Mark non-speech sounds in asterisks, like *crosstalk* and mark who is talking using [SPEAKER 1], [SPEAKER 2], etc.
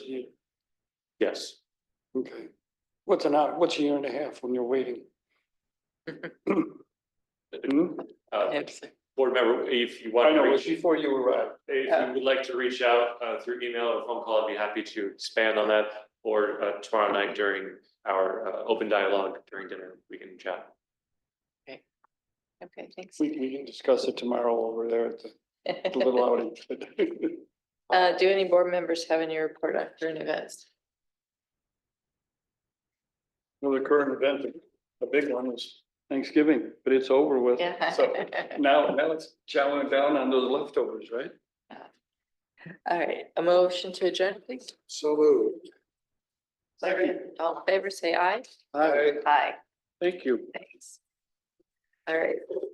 [SPEAKER 1] Yes,
[SPEAKER 2] Okay. What's an hour, what's a year and a half when you're waiting? Hmm?
[SPEAKER 1] uh, board member, if you
[SPEAKER 2] I
[SPEAKER 1] want to
[SPEAKER 2] know, it was
[SPEAKER 1] reach, if
[SPEAKER 2] before you were out.
[SPEAKER 1] you would like to reach out, uh, through email or phone call, I'd be happy to expand on that. Or, uh, tomorrow night during our, uh, open dialogue during dinner, we can chat.
[SPEAKER 3] Okay, thanks. *laughs*
[SPEAKER 2] We, we can discuss it tomorrow over there at the the little outing.
[SPEAKER 3] Uh, do any board members have any report on current events?
[SPEAKER 2] Well, the current event, the big one is Thanksgiving, but it's over with.
[SPEAKER 3] Yeah.
[SPEAKER 2] So now, now it's chowing down on those leftovers, right?
[SPEAKER 3] *laughs* All right, a motion to adjourn, please.
[SPEAKER 2] So moved. Second.
[SPEAKER 3] All in favor, say aye.
[SPEAKER 2] Hi,
[SPEAKER 3] Aye.
[SPEAKER 2] thank you.
[SPEAKER 3] Thanks. All right.